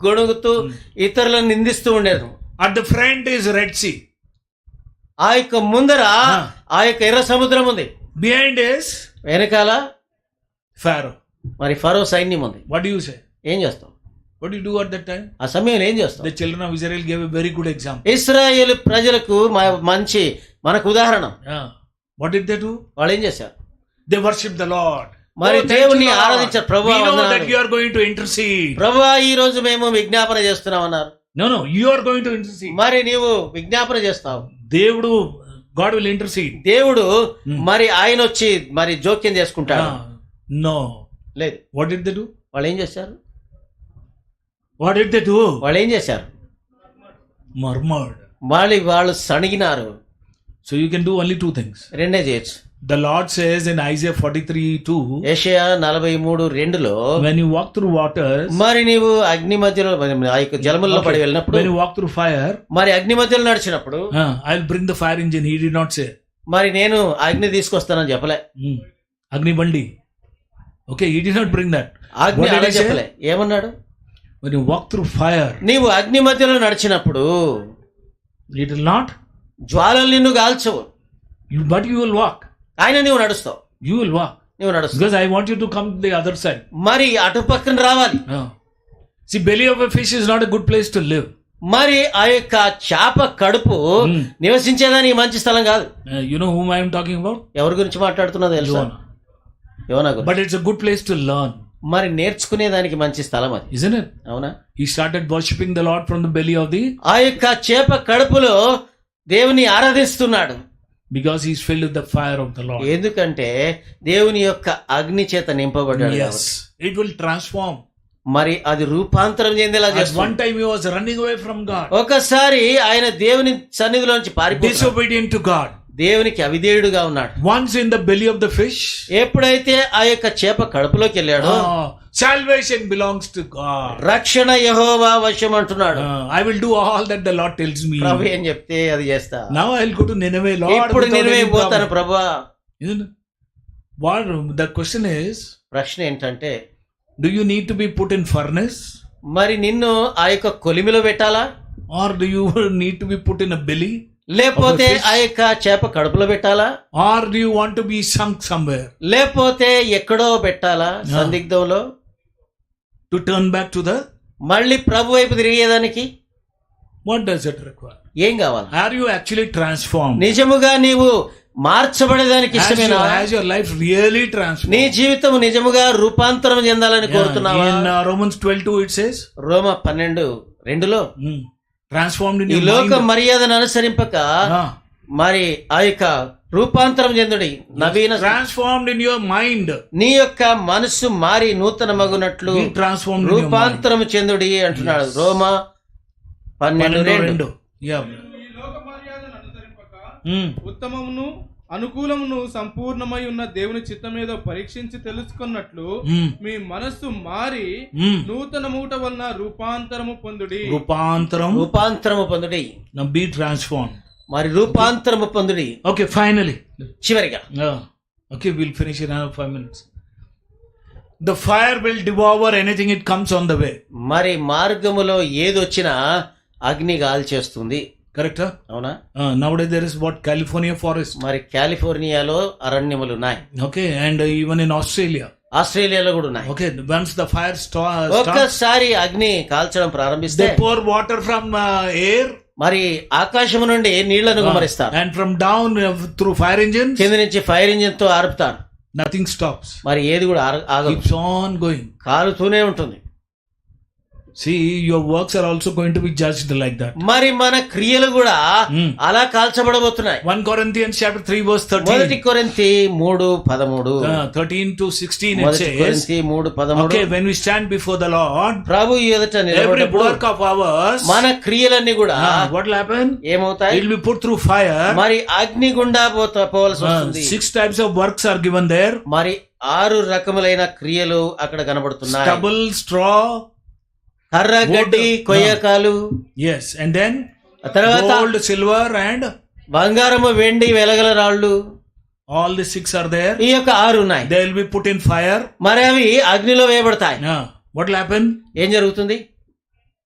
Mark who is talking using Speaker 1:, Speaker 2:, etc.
Speaker 1: గొణుగుతూ ఇతరులను నిందిస్తూ ఉండేది
Speaker 2: At the front is Red Sea.
Speaker 1: ఆ యొక్క ముందర ఆ యొక్క ఎర్ర సముద్రం ఉంది
Speaker 2: Behind is
Speaker 1: వెనకాల
Speaker 2: Pharaoh.
Speaker 1: మరి ఫరో సైన్యం ఉంది
Speaker 2: What do you say?
Speaker 1: ఏం చేస్తాం
Speaker 2: What do you do at that time?
Speaker 1: ఆ సమయంలో ఏం చేస్తాం
Speaker 2: The children of Israel gave a very good example.
Speaker 1: Israel ప్రజలకు మ- మంచి మనకు ఉదాహరణ
Speaker 2: Yeah. What did they do?
Speaker 1: వాళ్ళు ఏం చేశారు
Speaker 2: They worshiped the Lord.
Speaker 1: మరి
Speaker 2: Oh, thank
Speaker 1: దేవుణ్ణి
Speaker 2: you, Lord.
Speaker 1: ఆరాధించారు.
Speaker 2: We
Speaker 1: ప్రభువా,
Speaker 2: know
Speaker 1: వందనాలు.
Speaker 2: that you are going to intercede.
Speaker 1: ప్రభా ఈ రోజు మేము విజ్ఞాపన చేస్తున్నాం అన్నారు
Speaker 2: No, no, you are going to intercede.
Speaker 1: మరి నీవు విజ్ఞాపన చేస్తావు
Speaker 2: దేవుడు God will intercede.
Speaker 1: దేవుడు
Speaker 2: Hmm.
Speaker 1: మరి ఆయన వచ్చి మరి జోక్యం చేసుకుంటాడు
Speaker 2: Ah, no.
Speaker 1: లేదు
Speaker 2: What did they do?
Speaker 1: వాళ్ళు ఏం చేశారు
Speaker 2: What did they do?
Speaker 1: వాళ్ళు ఏం చేశారు
Speaker 2: Murmured.
Speaker 1: మళ్ళీ వాళ్ళు సణిగినారు
Speaker 2: So you can do only two things.
Speaker 1: రెండే చేయొచ్చు
Speaker 2: The Lord says in Isaiah 43 2,
Speaker 1: Isaiah నలభై మూడు రెండులో
Speaker 2: when you walk through waters,
Speaker 1: మరి నీవు అగ్ని మధ్యలో ఆ యొక్క జలముల్లో పడి వెళ్ళినప్పుడు
Speaker 2: when you walk through fire,
Speaker 1: మరి అగ్ని మధ్యలో నడిచినప్పుడు
Speaker 2: ah, I'll bring the fire engine. He did not say.
Speaker 1: మరి నేను అగ్ని తీసుకొస్తానని చెప్పలే
Speaker 2: Hmm. Agni Bandi. Okay, he did not bring that.
Speaker 1: అగ్ని
Speaker 2: What did
Speaker 1: అలా
Speaker 2: he say?
Speaker 1: చెప్పలే ఏమన్నాడు
Speaker 2: When you walk through fire,
Speaker 1: నీవు అగ్ని మధ్యలో నడిచినప్పుడు
Speaker 2: it will not,
Speaker 1: జ్వాలలు నిన్ను కాల్చవు
Speaker 2: you, but you will walk.
Speaker 1: ఆయన నీవు నడుస్తావు
Speaker 2: You will walk.
Speaker 1: నువ్వు నడుస్తావు
Speaker 2: Because I want you to come to the other side.
Speaker 1: మరి అటు పక్కన రావాలి
Speaker 2: Ah. See, belly of a fish is not a good place to live.
Speaker 1: మరి ఆ యొక్క చేప కడుపు
Speaker 2: Hmm.
Speaker 1: నివసించేదాని మంచి స్థలం కాదు
Speaker 2: Uh, you know whom I am talking about?
Speaker 1: ఎవరి గురించి మాట్లాడుతున్నా తెలుసా
Speaker 2: Jonah.
Speaker 1: యోనా గురించి
Speaker 2: But it's a good place to learn,
Speaker 1: మరి నేర్చుకునేదానికి మంచి స్థలం అది
Speaker 2: isn't it?
Speaker 1: అవునా
Speaker 2: He started worshipping the Lord from the belly of the
Speaker 1: ఆ యొక్క చేప కడుపులో దేవుని ఆరాధిస్తున్నాడు
Speaker 2: because he's filled with the fire of the Lord.
Speaker 1: ఎందుకంటే దేవుని యొక్క అగ్ని చేత నింపబడ్డాడు కాబట్టి.
Speaker 2: Yes. It will transform.
Speaker 1: మరి అది రూపాంతరం చెందేలా
Speaker 2: At
Speaker 1: చేస్తుంది
Speaker 2: one time he was running away from
Speaker 1: Oh,
Speaker 2: God,
Speaker 1: ఒకసారి ఆయన దేవుని సన్నిధిలో నుంచి పారిపోయి
Speaker 2: disobedient to God.
Speaker 1: దేవునికి అవిధేయుడుగా ఉన్నాడు
Speaker 2: Once in the belly of the fish,
Speaker 1: ఎప్పుడైతే ఆ యొక్క చేప కడుపులోకి వెళ్ళాడో
Speaker 2: ah, salvation belongs to God.
Speaker 1: రక్షణ యహోవా వశం అంటున్నాడు
Speaker 2: Ah, I will do all that the Lord tells me.
Speaker 1: ప్రభు ఏం చెప్తే అది చేస్తా
Speaker 2: Now I'll go to Nineveh, Lord.
Speaker 1: ఇప్పుడు
Speaker 2: without
Speaker 1: నేనే
Speaker 2: any
Speaker 1: పోతాను
Speaker 2: problem.
Speaker 1: ప్రభా
Speaker 2: Isn't it? What the question is,
Speaker 1: ప్రశ్న ఏంటంటే
Speaker 2: do you need to be put in furnace?
Speaker 1: మరి నిన్ను ఆ యొక్క కొలిమిలో పెట్టాలా
Speaker 2: Or do you need to be put in a belly?
Speaker 1: లేకపోతే
Speaker 2: Of the fish.
Speaker 1: ఆ యొక్క చేప కడుపులో పెట్టాలా
Speaker 2: Or do you want to be sunk somewhere
Speaker 1: లేకపోతే ఎక్కడో పెట్టాలా సందిగ్ధంలో
Speaker 2: to turn back to the
Speaker 1: మళ్ళీ ప్రభు వైపు తిరిగేదానికి
Speaker 2: what does it require?
Speaker 1: ఏం కావాలి
Speaker 2: Are you actually transformed?
Speaker 1: నిజముగా నీవు మార్చబడేదానికి
Speaker 2: Has, you,
Speaker 1: ఇష్టమేనా
Speaker 2: has your life really transformed?
Speaker 1: నీ జీవితం నిజముగా రూపాంతరం చెందాలని కోరుతున్నావా
Speaker 2: In uh, Romans 12 2, it says,
Speaker 1: రోమ పన్నెండు రెండులో
Speaker 2: mm, transformed in
Speaker 1: ఈ
Speaker 2: your
Speaker 1: లోక
Speaker 2: mind.
Speaker 1: మర్యాదను అనుసరింపక
Speaker 2: Ah,
Speaker 1: మరి ఆ యొక్క రూపాంతరం చెందుడి నవీన
Speaker 2: transformed in your mind.
Speaker 1: నీ యొక్క మనస్సు మారి నూతన మగునట్లు
Speaker 2: Be transformed in your mind.
Speaker 1: రూపాంతరం చెందుడి అంటున్నాడు రోమ పన్నెండు రెండు
Speaker 2: Rendu. Yeah.
Speaker 3: ఈ లోక మర్యాదను అనుసరింపక
Speaker 2: Mm.
Speaker 3: ఉత్తమమును అనుకూలమును సంపూర్ణమై ఉన్న దేవుని చిత్తమేదో పరీక్షించి తెలుసుకున్నట్లు
Speaker 2: Mm.
Speaker 3: మీ మనస్సు మారి
Speaker 2: Mm.
Speaker 3: నూతన మూట వలన రూపాంతరము పొందుడి
Speaker 2: Rupantaram.
Speaker 1: రూపాంతరము పొందుడి
Speaker 2: Now be transformed.
Speaker 1: మరి రూపాంతరము పొందుడి
Speaker 2: Okay, finally.
Speaker 1: చివరిగా
Speaker 2: Yeah. Okay, we'll finish in another five minutes. The fire will devour anything it comes on the way.
Speaker 1: మరి మార్గములో ఏది వచ్చినా అగ్ని గాల్చేస్తుంది
Speaker 2: Correct? Huh?
Speaker 1: అవునా
Speaker 2: Uh, nowadays there is what California forest.
Speaker 1: మరి కాలిఫోర్నియాలో అరణ్యములు ఉన్నాయి
Speaker 2: Okay, and uh, even in Australia.
Speaker 1: ఆస్ట్రేలియాలో కూడా ఉన్నాయి
Speaker 2: Okay, once the fire sta- starts,
Speaker 1: ఒక్కసారి అగ్ని కాల్చడం ప్రారంభిస్తే
Speaker 2: they pour water from uh, air
Speaker 1: మరి ఆకాశము నుండి నీళ్లను గుమరిస్తారు
Speaker 2: and from down uh, through fire engines.
Speaker 1: కింద నుంచి ఫైర్ ఇంజిన్ తో ఆర్పుతారు
Speaker 2: Nothing stops.
Speaker 1: మరి ఏది కూడా ఆగ- ఆగదు
Speaker 2: Keeps on going.
Speaker 1: కాలుతూనే ఉంటుంది
Speaker 2: See, your works are also going to be judged like that.
Speaker 1: మరి మన క్రియలు కూడా
Speaker 2: Hmm.
Speaker 1: అలా కాల్చబడబోతున్నాయి
Speaker 2: 1 Corinthians chapter 3 verse 13.
Speaker 1: మొదటి కొరింతి మూడు పదమూడు
Speaker 2: Uh, 13 to 16 it
Speaker 1: మొదటి
Speaker 2: says,
Speaker 1: కొరింతి మూడు పదమూడు
Speaker 2: Okay, when we stand before the Lord,
Speaker 1: ప్రభు ఎదుట
Speaker 2: every
Speaker 1: నిలబడినప్పుడు
Speaker 2: work of ours,
Speaker 1: మన క్రియలన్నీ కూడా
Speaker 2: uh, what will happen?
Speaker 1: ఏమవుతాయి
Speaker 2: It will be put through fire.
Speaker 1: మరి అగ్ని గుండా పోత పోవలసి
Speaker 2: Uh,
Speaker 1: వస్తుంది
Speaker 2: six types of works are given there.
Speaker 1: మరి ఆరు రకములైన క్రియలు అక్కడ కనబడుతున్నాయి
Speaker 2: Stubble, straw,
Speaker 1: కర్ర గడ్డి కొయ్యకాలు
Speaker 2: yes, and then
Speaker 1: ఆ తర్వాత
Speaker 2: gold, silver, and
Speaker 1: బంగారము వెండి వెలగల రాళ్ళు
Speaker 2: all the six are there.
Speaker 1: ఈ యొక్క ఆరు ఉన్నాయి
Speaker 2: They will be put in fire.
Speaker 1: మరి అవి అగ్నిలో వేయబడతాయి
Speaker 2: Uh, what will happen?
Speaker 1: ఏం జరుగుతుంది